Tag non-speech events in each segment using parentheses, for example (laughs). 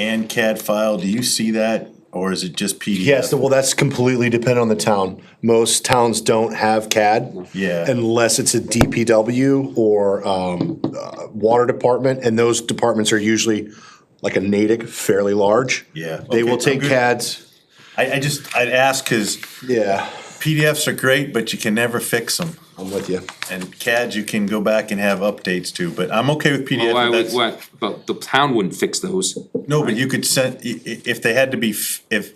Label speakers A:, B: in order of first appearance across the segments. A: and CAD file, do you see that, or is it just PDF?
B: Yes, well, that's completely dependent on the town. Most towns don't have CAD.
A: Yeah.
B: Unless it's a DPW or um, uh, water department, and those departments are usually like a Natick, fairly large.
A: Yeah,
B: They will
A: okay, I'm
B: take
A: good.
B: CADs,
A: I, I just, I'd ask, cause
B: yeah,
A: PDFs are great, but you can never fix them.
B: I'm with you.
A: And CAD, you can go back and have updates to, but I'm okay with PDF.
C: Well, why
A: but
C: would-
A: that's-
C: why- but the town wouldn't fix those.
A: No, but you could send, i- i- if they had to be, f- if,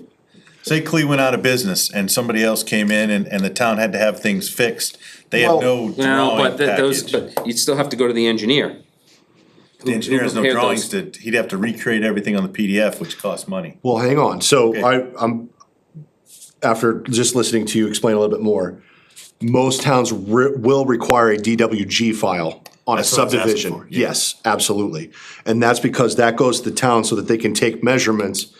A: say Clee went out of business and somebody else came in and, and the town had to have things fixed, they have
B: Well-
A: no
C: No,
A: drawing
C: but th- those,
A: package. The
C: but you'd still have to go to the engineer.
A: engineer has no
C: prepared
A: drawings to, he'd have to recreate everything on the PDF, which costs money.
B: Well, hang on, so
A: Okay.
B: I, I'm, after just listening to you explain a little bit more, most towns re- will require a DWG file on a
A: That's what I was asking
B: subdivision.
A: for, yeah.
B: Yes, absolutely, and that's because that goes to the town so that they can take measurements.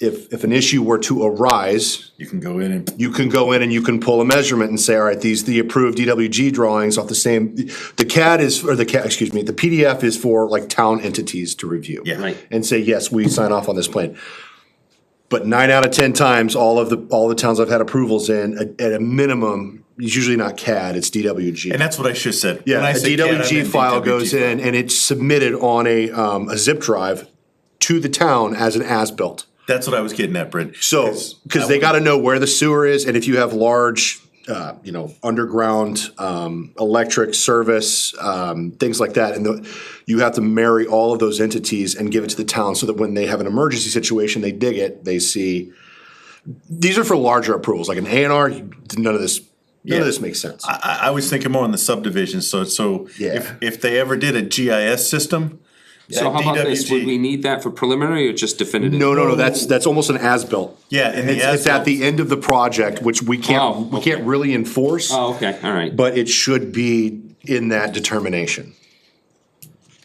B: If, if an issue were to arise,
A: You can go in and
B: you can go in and you can pull a measurement and say, all right, these, the approved DWG drawings off the same, the CAD is, or the CAD, excuse me, the PDF is for like town entities to review
A: Yeah.
C: Right.
B: and say, yes, we sign off on this plan. But nine out of ten times, all of the, all the towns I've had approvals in, at, at a minimum, it's usually not CAD, it's DWG.
A: And that's what I should have said. When
B: Yeah,
A: I
B: a
A: say CAD, I
B: DWG
A: meant
B: file
A: DWG
B: goes
A: file.
B: in and it's submitted on a, um, a zip drive to the town as an as-built.
A: That's what I was getting at, Brent.
B: So, because they got to know where the sewer is, and if you have large, uh, you know, underground um, electric service, um, things like that, and the, you have to marry all of those entities and give it to the town so that when they have an emergency situation, they dig it, they see. These are for larger approvals, like an A and R. None of this, none
A: Yeah. Uh,
B: of this makes sense.
A: I, I was thinking more on the subdivision, so, so
B: Yeah.
A: if, if they ever did a GIS system,
C: So how about this, would we
A: DWG,
C: need that for preliminary or just definitive?
B: no, no, no. That's that's almost an as-built.
A: Yeah, and the
B: it's, it's at
A: as-built-
B: the end of the project, which we can't
C: Oh,
B: we can't really enforce,
A: Uh,
C: Oh, okay, all right.
B: but it should be in that determination.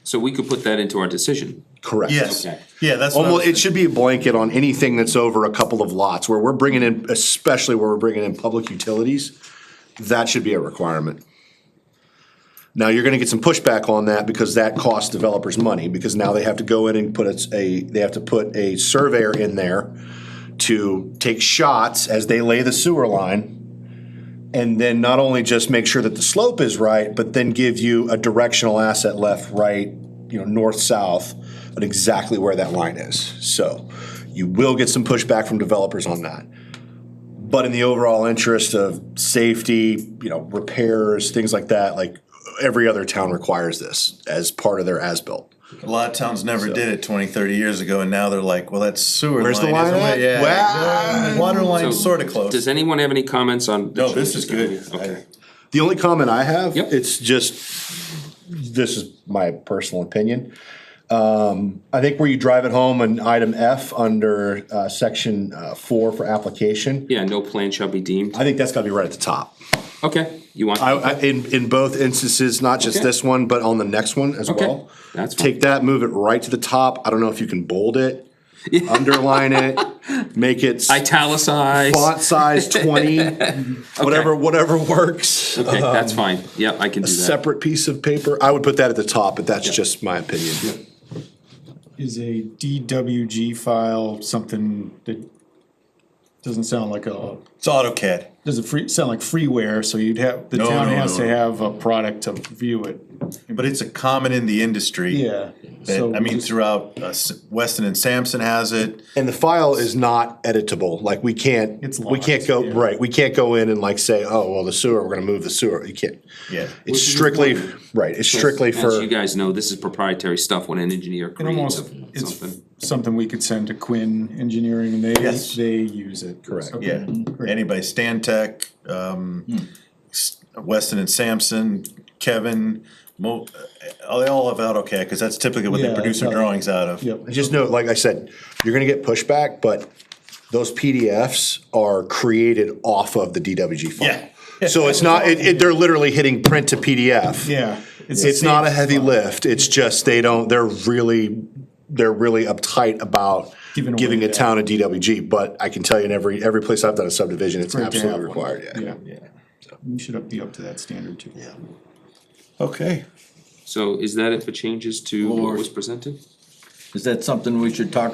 C: So we could put that into our decision.
B: Correct.
A: Yes,
C: Okay.
A: yeah, that's what I was
B: Almost, it
A: thinking.
B: should be a blanket on anything that's over a couple of lots, where we're bringing in, especially where we're bringing in public utilities, that should be a requirement. Now, you're gonna get some pushback on that because that costs developers money, because now they have to go in and put a- a, they have to put a surveyor in there to take shots as they lay the sewer line. And then not only just make sure that the slope is right, but then give you a directional asset left, right, you know, north, south, and exactly where that line is. So you will get some pushback from developers on that. But in the overall interest of safety, you know, repairs, things like that, like every other town requires this as part of their as-built.
A: A lot of towns never did it 20, 30 years ago, and now they're like, well, that's sewer
B: Where's the
A: line,
B: line
A: isn't
B: at?
A: it? Yeah.
B: Wow.
A: yeah, Water line's
C: So,
A: sort of close.
C: Does anyone have any comments on? the
A: No, this is
C: changes?
A: good.
C: Okay.
B: The only comment I have,
C: Yep.
B: it's just, this is my personal opinion. Um, I think where you drive it home in item F under, uh, section, uh, four for application,
C: Yeah, no plan shall be deemed.
B: I think that's gotta be right at the top.
C: Okay, you want?
B: I, I, in, in both instances, not just
C: Okay.
B: this one, but on the next one as
C: Okay,
B: well.
C: that's fine.
B: Take that, move it right to the top. I don't know if you can bold
C: (laughs)
B: it, underline it, make it
C: Italicize.
B: font size
C: (laughs)
B: twenty, whatever, whatever works.
C: Okay, that's fine. Yeah, I can do that.
B: um, Separate piece of paper. I would put that at the top, but that's just my opinion.
D: Is a DWG file something that doesn't sound like a,
A: it's AutoCAD.
D: does it free, sound like freeware, so you'd have, the
A: No,
D: town
A: no,
D: has
A: no.
D: to have a product to view it.
A: But it's a common in the industry.
D: Yeah.
A: that-
D: So
A: I mean,
D: just-
A: throughout uh, S- Weston and Sampson has it.
B: And the file is not editable. Like we can't,
D: It's
B: we can't
D: locked,
B: go,
D: yeah.
B: right, we can't go in and like say, oh, well, the sewer, we're gonna move the sewer. You can't.
A: Yeah.
B: It's strictly, right, it's strictly
C: As
B: for.
C: you guys know, this is proprietary stuff when an engineer
D: It
C: creates
D: almost,
C: a-
D: it's
C: something.
D: something we could send to Quinn Engineering and they,
A: Yes.
D: they use it.
B: Correct.
D: Okay,
A: Yeah,
D: great.
A: anybody, Stan Tech, um, S-
D: Hmm.
A: Weston and Sampson, Kevin, Mo, uh, they all have AutoCAD, because that's typically what they
D: Yeah,
A: produce their
D: yeah.
A: drawings out of.
D: Yep.
B: I just know, like I said, you're gonna get pushback, but those PDFs are created off of the DWG file.
A: Yeah.
B: So it's not, it, it, they're literally hitting print to PDF.
D: Yeah. the
B: It's not a
D: same-
B: heavy lift, it's just they don't, they're really, they're really uptight about
D: Giving away
B: giving a
D: that.
B: town a DWG, but I can tell you in every, every place I've done a subdivision, it's
D: great to have
B: absolutely
D: one.
B: required, yeah.
D: Yeah. You should up- be up to that standard too. Yeah.
A: Okay.
C: So is that it for changes to what was presented?
E: Is that something we should talk